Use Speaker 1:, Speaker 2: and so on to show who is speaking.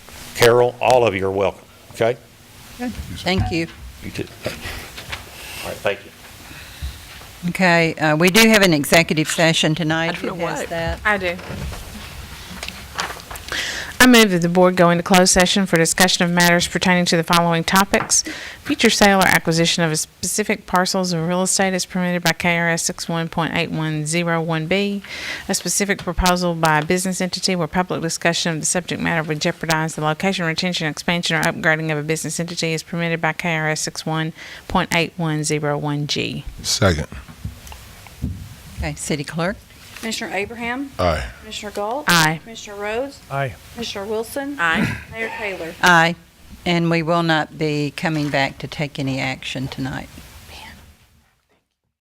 Speaker 1: Carol, all of you are welcome, okay?
Speaker 2: Thank you.
Speaker 1: You too. All right, thank you.
Speaker 2: Okay, uh, we do have an executive session tonight.
Speaker 3: I don't know
Speaker 2: Who has
Speaker 3: why.
Speaker 2: that?
Speaker 4: I do.
Speaker 5: I move that the board go into closed session for discussion of matters pertaining to the following topics. Future sale or acquisition of specific parcels of real estate as permitted by KRS 61.8101B. A specific proposal by a business entity where public discussion of the subject matter would jeopardize the location, retention, expansion, or upgrading of a business entity as permitted by KRS 61.8101G.
Speaker 6: Second.
Speaker 2: Okay, City Clerk?
Speaker 7: Commissioner Abraham?
Speaker 6: Aye.
Speaker 7: Commissioner Galt?
Speaker 5: Aye.
Speaker 7: Commissioner Rhodes?
Speaker 8: Aye.
Speaker 7: Commissioner Wilson?
Speaker 3: Aye.
Speaker 7: Mayor Taylor?
Speaker 2: Aye. And we will not be coming back to take any action tonight.